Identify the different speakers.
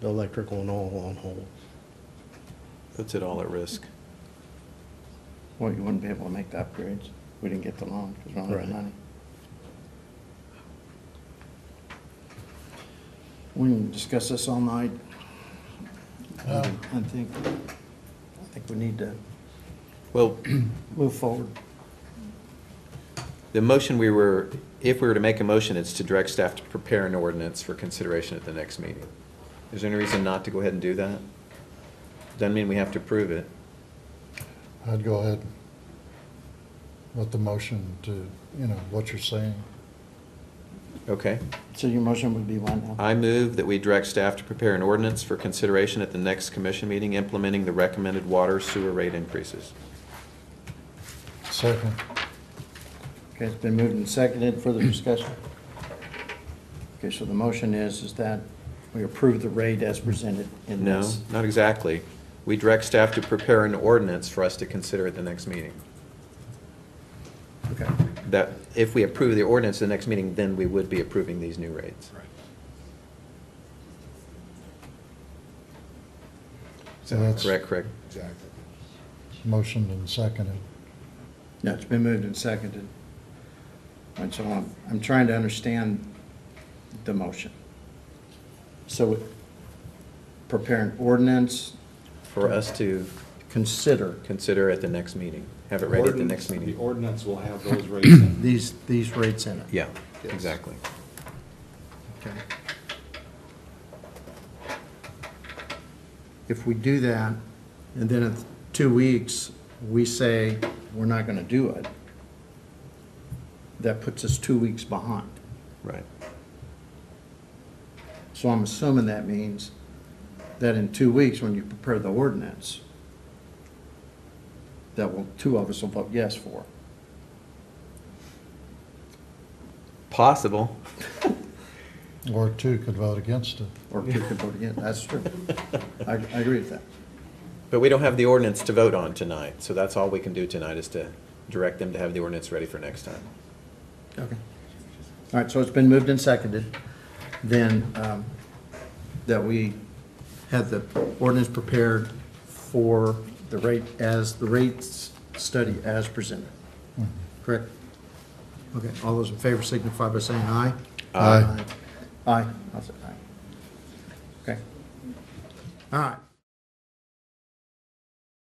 Speaker 1: the electrical and all on hold.
Speaker 2: Puts it all at risk.
Speaker 3: Well, you wouldn't be able to make the upgrades. We didn't get the loan because we don't have the
Speaker 1: Right.
Speaker 3: money. We can discuss this all night. I think, I think we need to
Speaker 2: Well,
Speaker 3: move forward.
Speaker 2: the motion we were, if we were to make a motion, it's to direct staff to prepare an ordinance for consideration at the next meeting. Is there any reason not to go ahead and do that? Doesn't mean we have to approve it.
Speaker 4: I'd go ahead with the motion to, you know, what you're saying.
Speaker 2: Okay.
Speaker 3: So your motion would be one now?
Speaker 2: I move that we direct staff to prepare an ordinance for consideration at the next commission meeting implementing the recommended water sewer rate increases.
Speaker 4: Second,
Speaker 3: Okay, it's been moved and seconded. Further discussion? Okay, so the motion is, is that we approve the rate as presented in
Speaker 2: No,
Speaker 3: this.
Speaker 2: not exactly. We direct staff to prepare an ordinance for us to consider at the next meeting.
Speaker 3: Okay.
Speaker 2: That, if we approve the ordinance at the next meeting, then we would be approving these new rates.
Speaker 4: So that's-
Speaker 2: Correct, correct.
Speaker 5: Exactly.
Speaker 4: motioned and seconded.
Speaker 3: No, it's been moved and seconded. All right, so I'm, I'm trying to understand the motion. So prepare an ordinance,
Speaker 2: For us to
Speaker 3: consider
Speaker 2: consider at the next meeting, have it ready at the next
Speaker 5: Ordinance-
Speaker 2: meeting.
Speaker 5: The ordinance will have those rates in.
Speaker 3: these, these rates in it.
Speaker 2: Yeah,
Speaker 5: Yes.
Speaker 2: exactly.
Speaker 3: Okay. If we do that, and then in two weeks, we say, we're not gonna do it, that puts us two weeks behind.
Speaker 2: Right.
Speaker 3: So I'm assuming that means that in two weeks, when you prepare the ordinance, that will, two of us will vote yes for.
Speaker 2: Possible.
Speaker 4: Or two could vote against it.
Speaker 3: Or two could vote against, that's true. I, I agree with that.
Speaker 2: But we don't have the ordinance to vote on tonight, so that's all we can do tonight is to direct them to have the ordinance ready for next time.
Speaker 3: Okay. All right, so it's been moved and seconded, then, um, that we have the ordinance prepared for the rate, as, the rates study as presented. Correct? Okay, all those in favor signify by saying aye.
Speaker 4: Aye.
Speaker 3: Aye, I'll say aye. Okay. All right.